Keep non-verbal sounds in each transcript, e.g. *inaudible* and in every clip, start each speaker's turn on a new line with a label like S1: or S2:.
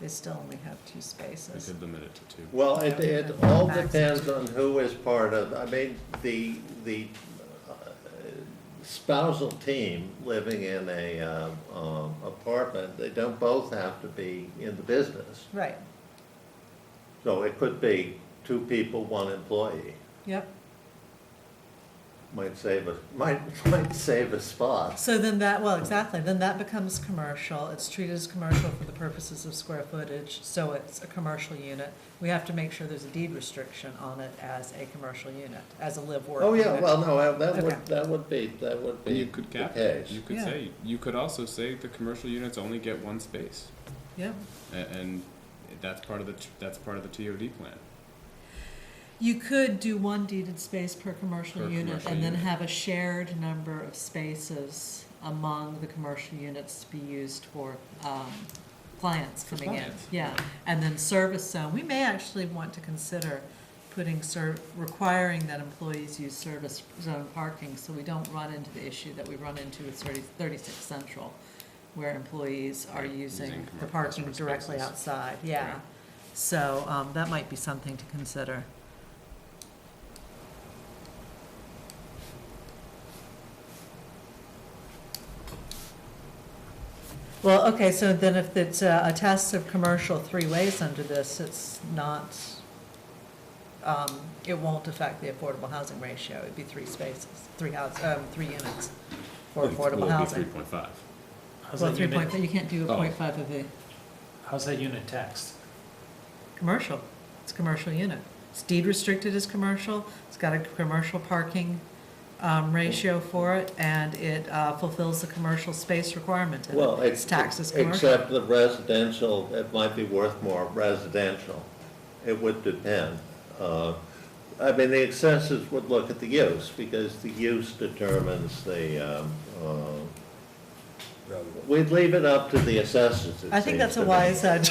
S1: they still only have two spaces.
S2: could limit it to two.
S3: Well, it, it all depends on who is part of, I mean, the, the uh, spousal team living in a, um, um, apartment, they don't both have to be in the business.
S1: Right,
S3: So it could be two people, one employee,
S1: yep.
S3: might save a, *laughs* might, might save a spot.
S1: So then that, well, exactly, then that becomes commercial, it's treated as commercial for the purposes of square footage, so it's a commercial unit. We have to make sure there's a deed restriction on it as a commercial unit, as a live work.
S3: Oh, yeah,
S1: unit.
S3: well, no, that
S1: Okay.
S3: would, that would be, that would
S2: And
S3: be
S2: you could
S3: the
S2: cap it,
S3: case.
S2: you could
S1: Yeah.
S2: say, you could also say the commercial units only get one space,
S1: Yeah,
S2: a- and that's part of the, t- that's part of the TOD plan.
S1: you could do one deeded space per commercial
S2: Per
S1: unit
S2: commercial
S1: and then
S2: unit.
S1: have a shared number of spaces among the commercial units to be used for, um, clients
S2: For
S1: coming in.
S2: clients.
S1: Yeah, and then service zone, we may actually want to consider putting ser, requiring that employees use service zone parking, so we don't run into the issue that we run into with thirty, thirty-six central, where employees are
S2: Right,
S1: using
S2: using
S1: the
S2: commer-
S1: parking
S2: customer
S1: directly
S2: spaces.
S1: outside, yeah.
S2: Right.
S1: So, um, that might be something to consider. Well, okay, so then if it's uh, a test of commercial three ways under this, it's not, um, it won't affect the affordable housing ratio. It'd be three spaces, three house, um, three units for affordable
S2: Three
S1: housing.
S2: point five.
S4: How's
S1: Well,
S4: that
S1: three
S4: unit,
S1: point, you can't do a
S2: Oh.
S1: point five of a
S4: how's that unit taxed?
S1: commercial. It's a commercial unit. It's deed restricted as commercial. It's got a commercial parking, um, ratio for it and it, uh, fulfills the commercial space requirement. in it.
S3: Well,
S1: It's
S3: it's.
S1: taxed as commercial.
S3: Except the residential, it might be worth more residential. It would depend. Uh, I mean, the assessors would look at the use, because the use determines the, um, uh, we'd leave it up to the assessors, it
S1: I think
S3: seems
S1: that's
S3: to
S1: a
S3: me.
S1: wise, uh,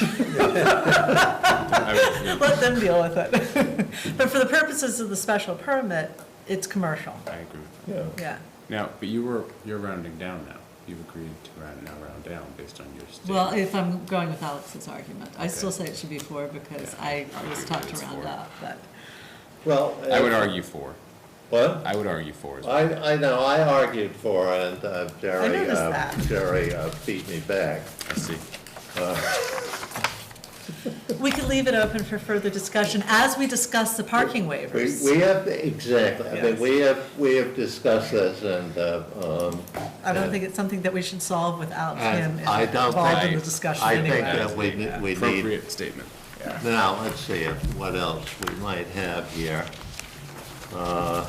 S2: I
S1: *laughs* Let them deal with it. *laughs* But for the purposes of the special permit, it's commercial,
S2: I agree with that.
S3: Yeah.
S1: yeah.
S2: Now, but you were, you're rounding down now. You've agreed to round, now round down based on your statement.
S1: Well, if I'm going with Alex's argument, I still
S2: Okay.
S1: say it should be four because
S2: Yeah,
S1: I
S2: I would
S1: was
S2: agree
S1: taught
S2: that
S1: to
S2: it's
S1: round
S2: four.
S1: up, but,
S3: Well.
S2: I would
S3: uh,
S2: argue four.
S3: What?
S2: I would argue four as well.
S3: I, I know, I argued for, and uh, Jerry.
S1: noticed
S3: uh,
S1: that.
S3: Jerry uh, beat me back.
S2: I see.
S1: we could leave it open for further discussion as we discuss the parking
S3: We,
S1: waivers.
S3: we have, exactly, I mean,
S1: Yes.
S3: we have, we have discussed this and, uh, um.
S1: I don't think it's something that we should solve without him
S3: I- I don't
S1: involved in the
S3: think-
S1: discussion
S3: I think
S1: anyway.
S3: that we, ne- we need,
S2: Appropriate statement.
S3: now, let's see if, what else we might have here. Uh,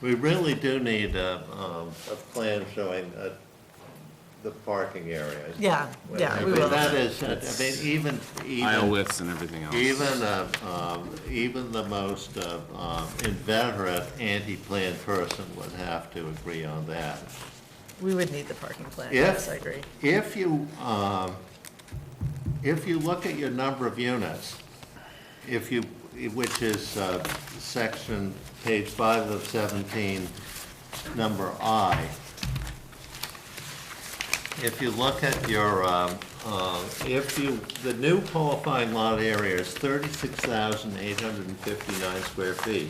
S3: We really do need a, um, a plan showing, uh, the parking area.
S1: Yeah, yeah,
S3: I
S1: we
S3: mean,
S1: will.
S3: That is, I mean, even, even.
S2: Aisle widths and everything else.
S3: Even, uh, um, even the most uh, um, inveterate anti-plan person would have to agree on that.
S1: We would need the parking plan,
S3: Yeah.
S1: yes, I agree.
S3: If you, um, if you look at your number of units, if you, which is uh, section, page five of 17, number I, if you look at your, um, uh, if you, the new qualifying lot area is 36,859 square feet.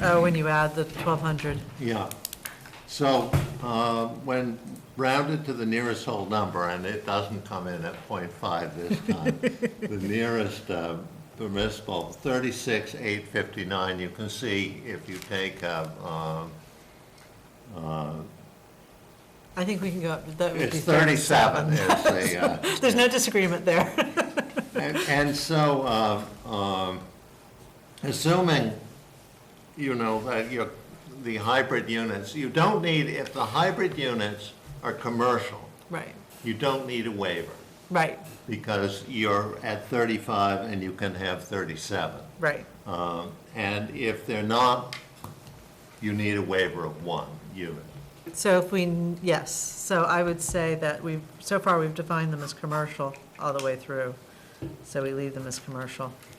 S1: Oh, when you add the twelve hundred,
S3: Yeah. So, uh, when rounded to the nearest whole number, and it doesn't come in at .5 this
S1: *laughs*
S3: time, the nearest uh, permissible, thirty-six, eight fifty-nine, you can see if you take, uh, um,
S1: I think we can go up, that would be
S3: it's thirty-seven
S1: thirty-seven.
S3: is the, uh,
S1: *laughs* There's no disagreement there. *laughs*
S3: And and so, uh, um, assuming, you know, that your, the hybrid units, you don't need, if the hybrid units are commercial,
S1: Right,
S3: you don't need a waiver,
S1: right,
S3: because you're at 35 and you can have 37.
S1: right.
S3: Um, And if they're not, you need a waiver of one unit.
S1: So if we, yes, so I would say that we've, so far, we've defined them as commercial all the way through, so we leave them as commercial.